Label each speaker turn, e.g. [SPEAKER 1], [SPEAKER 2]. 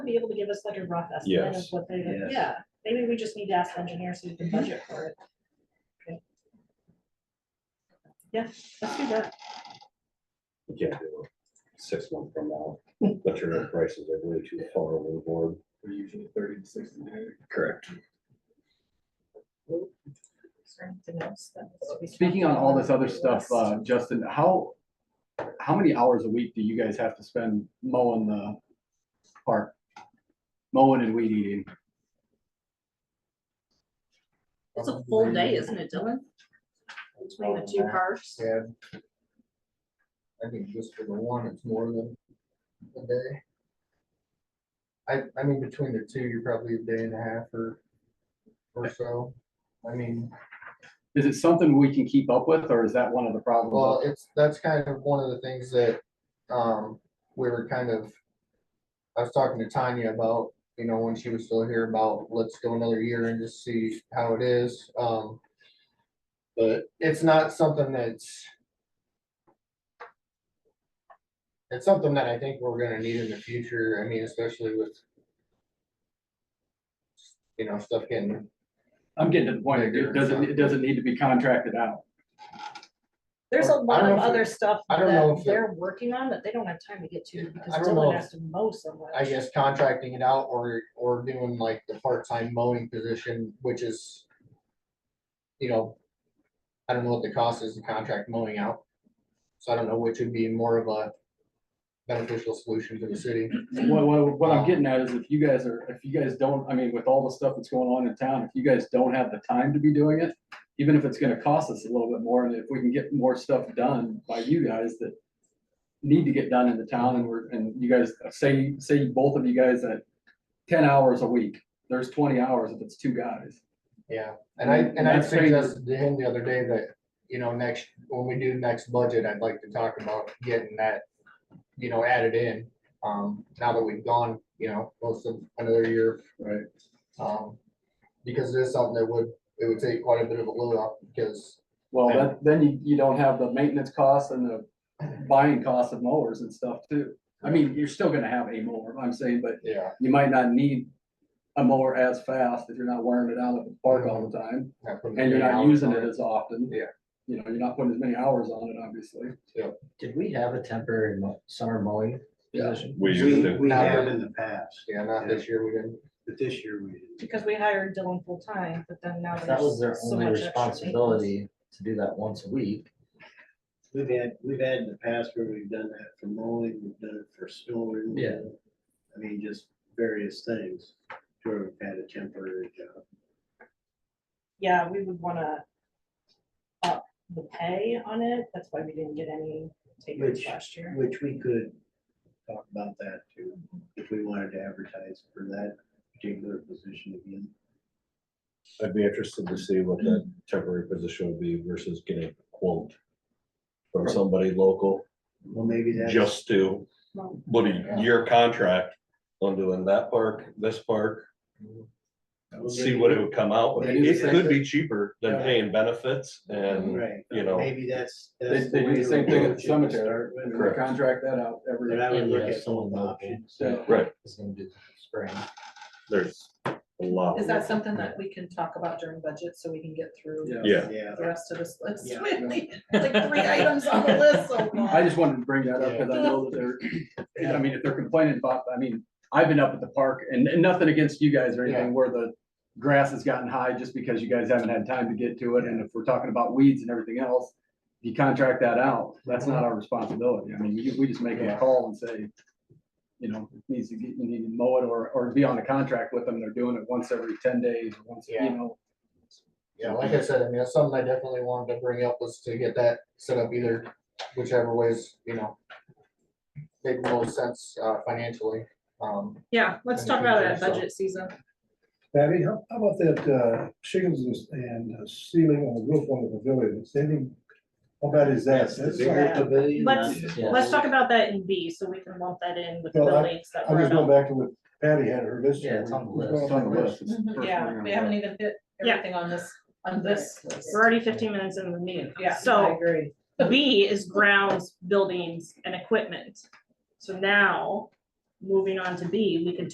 [SPEAKER 1] be able to give us like a rough estimate of
[SPEAKER 2] Yes.
[SPEAKER 1] what they,
[SPEAKER 3] Yes.
[SPEAKER 1] yeah, maybe we just need to ask engineers who
[SPEAKER 4] Mm-hmm.
[SPEAKER 1] can budget for it. Okay. Yeah, let's do that.
[SPEAKER 2] You can't do it six months from now, but your prices are way too far overboard.
[SPEAKER 5] We're usually thirty to sixty days.
[SPEAKER 3] Correct.
[SPEAKER 4] Speaking on all this other stuff, uh, Justin, how, how many hours a week do you guys have to spend mowing the park? Mowing and weed eating?
[SPEAKER 6] It's a full day, isn't it, Dylan? Between the two parks?
[SPEAKER 5] Yeah. I think just for the one, it's more than a day. I, I mean, between the two, you're probably a day and a half or, or so. I mean,
[SPEAKER 4] Is it something we can keep up with, or is that one of the
[SPEAKER 5] well,
[SPEAKER 4] problems?
[SPEAKER 5] it's, that's kind of one of the things that, um, we were kind of. I was talking to Tanya about, you know, when she was still here about, let's go another year and just see how it is, um. But it's not something that's. It's something that I think we're gonna need in the future, I mean, especially with. You know, stuff getting,
[SPEAKER 4] I'm getting to the point, it doesn't, it doesn't need to be contracted out.
[SPEAKER 1] There's a
[SPEAKER 5] I
[SPEAKER 1] lot
[SPEAKER 5] don't
[SPEAKER 1] of
[SPEAKER 5] know if
[SPEAKER 1] other
[SPEAKER 5] it-
[SPEAKER 1] stuff
[SPEAKER 5] I don't know
[SPEAKER 1] that
[SPEAKER 5] if it-
[SPEAKER 1] they're working on that they don't have time to get to because
[SPEAKER 5] I don't know
[SPEAKER 1] Dylan
[SPEAKER 5] if-
[SPEAKER 1] has to mow so much.
[SPEAKER 5] I guess contracting it out or, or doing like the part-time mowing position, which is. You know, I don't know what the cost is to contract mowing out, so I don't know which would be more of a beneficial solution to the city.
[SPEAKER 4] What, what, what I'm getting at is if you guys are, if you guys don't, I mean, with all the stuff that's going on in town, if you guys don't have the time to be doing it, even if it's gonna cost us a little bit more, and if we can get more stuff done by you guys that need to get done in the town, and we're, and you guys, say, say both of you guys at ten hours a week, there's twenty hours if it's two guys.
[SPEAKER 5] Yeah, and I, and I
[SPEAKER 4] That's crazy.
[SPEAKER 5] suggested to him the other day that, you know, next, when we do next budget, I'd like to talk about getting that, you know, added in. Um, now that we've gone, you know, most of another year.
[SPEAKER 4] Right.
[SPEAKER 5] Um, because this is something that would, it would take quite a bit of a load off, because,
[SPEAKER 4] Well, then, then you, you don't have the maintenance costs and the buying costs of mowers and stuff too. I mean, you're still gonna have a mower, I'm saying, but
[SPEAKER 5] yeah,
[SPEAKER 4] you might not need a mower as fast if you're not wearing it out at the park all the time,
[SPEAKER 5] not putting
[SPEAKER 4] and you're
[SPEAKER 5] many
[SPEAKER 4] not
[SPEAKER 5] hours
[SPEAKER 4] using
[SPEAKER 5] on
[SPEAKER 4] it as often.
[SPEAKER 5] Yeah.
[SPEAKER 4] You know, you're not putting as many hours on it, obviously.
[SPEAKER 3] Did we have a temporary mo- summer mowing
[SPEAKER 4] Yeah.
[SPEAKER 3] position?
[SPEAKER 2] We used
[SPEAKER 7] We,
[SPEAKER 2] to,
[SPEAKER 7] we have in the past,
[SPEAKER 5] Yeah, not this year, we didn't.
[SPEAKER 7] but this year we didn't.
[SPEAKER 1] Because we hired Dylan full-time, but then now
[SPEAKER 3] If That was their
[SPEAKER 1] there's so
[SPEAKER 3] only
[SPEAKER 1] much extra maintenance.
[SPEAKER 3] responsibility to do that once a week.
[SPEAKER 7] We've had, we've had in the past where we've done that for mowing, we've done it for snow removal.
[SPEAKER 3] Yeah.
[SPEAKER 7] I mean, just various things, where we've had a temporary job.
[SPEAKER 1] Yeah, we would wanna up the pay on it. That's why we didn't get any takers
[SPEAKER 7] Which-
[SPEAKER 1] last year.
[SPEAKER 7] Which we could talk about that too, if we wanted to advertise for that particular position again.
[SPEAKER 2] I'd be interested to see what that temporary position would be versus getting a quote from somebody local,
[SPEAKER 7] Well, maybe that's.
[SPEAKER 2] just to,
[SPEAKER 1] Well,
[SPEAKER 2] what a year contract on doing that park, this park, see what it would come out with. It could be cheaper than paying benefits and,
[SPEAKER 7] Right.
[SPEAKER 2] you know,
[SPEAKER 7] Maybe that's.
[SPEAKER 4] They,
[SPEAKER 7] that's
[SPEAKER 4] they do
[SPEAKER 7] way
[SPEAKER 4] the
[SPEAKER 7] to
[SPEAKER 4] same thing at the
[SPEAKER 7] approach it to
[SPEAKER 4] cemetery,
[SPEAKER 7] start with.
[SPEAKER 4] and they
[SPEAKER 2] Correct.
[SPEAKER 4] contract that out every,
[SPEAKER 7] But I would
[SPEAKER 3] Yeah,
[SPEAKER 7] look at
[SPEAKER 3] someone
[SPEAKER 7] some
[SPEAKER 3] local.
[SPEAKER 7] options.
[SPEAKER 4] Yeah.
[SPEAKER 2] Right.
[SPEAKER 3] Is gonna do the spring.
[SPEAKER 2] there's a lot.
[SPEAKER 6] Is that something that we can talk about during budget so we can get through
[SPEAKER 4] yeah.
[SPEAKER 2] Yeah,
[SPEAKER 7] Yeah.
[SPEAKER 6] the rest of this list?
[SPEAKER 7] Yeah.
[SPEAKER 6] We only- Like three items on the list so
[SPEAKER 4] I
[SPEAKER 6] far.
[SPEAKER 4] just wanted to bring that up, because I know that they're, I mean, if they're complaining about, I mean, I've been up at the park, and, and nothing against you guys or anything, where the grass has gotten high just because you guys haven't had time to get to it, and if we're talking about weeds and everything else, you contract that out, that's not our responsibility, I mean, we, we just make them a call and say, you know, it needs to get, you need to mow it, or, or be on a contract with them, they're doing it once every ten days, or once, you
[SPEAKER 5] Yeah.
[SPEAKER 4] know.
[SPEAKER 5] Yeah, like I said, I mean, that's something I definitely wanted to bring up was to get that set up either whichever ways, you know. Make the most sense uh financially, um,
[SPEAKER 6] Yeah, let's talk about it at budget season.
[SPEAKER 8] Patty, how how about that uh, shingles and- and uh, ceiling on the roof on the pavilion, Is anything- how bad is that?
[SPEAKER 7] That's the bigger pavilion.
[SPEAKER 6] Let's-
[SPEAKER 7] that's-
[SPEAKER 3] Yeah.
[SPEAKER 6] Let's talk about that in B, so we can lump that in with
[SPEAKER 8] Well, I-
[SPEAKER 6] buildings that
[SPEAKER 8] I'm
[SPEAKER 6] were.
[SPEAKER 8] just going
[SPEAKER 6] not-
[SPEAKER 8] back to what Patty had her list.
[SPEAKER 3] Yeah, it's on the list.
[SPEAKER 4] It's on the list, it's the first thing
[SPEAKER 9] Mm-hmm. Yeah,
[SPEAKER 4] on
[SPEAKER 9] we
[SPEAKER 4] the
[SPEAKER 9] haven't
[SPEAKER 4] list.
[SPEAKER 9] even hit
[SPEAKER 6] Yeah.
[SPEAKER 9] everything on this, on
[SPEAKER 6] This,
[SPEAKER 9] this list.
[SPEAKER 6] we're already fifteen minutes into the meeting.
[SPEAKER 9] Yeah, I
[SPEAKER 6] So
[SPEAKER 9] agree.
[SPEAKER 6] B is grounds, buildings and equipment. So now, moving on to B, we can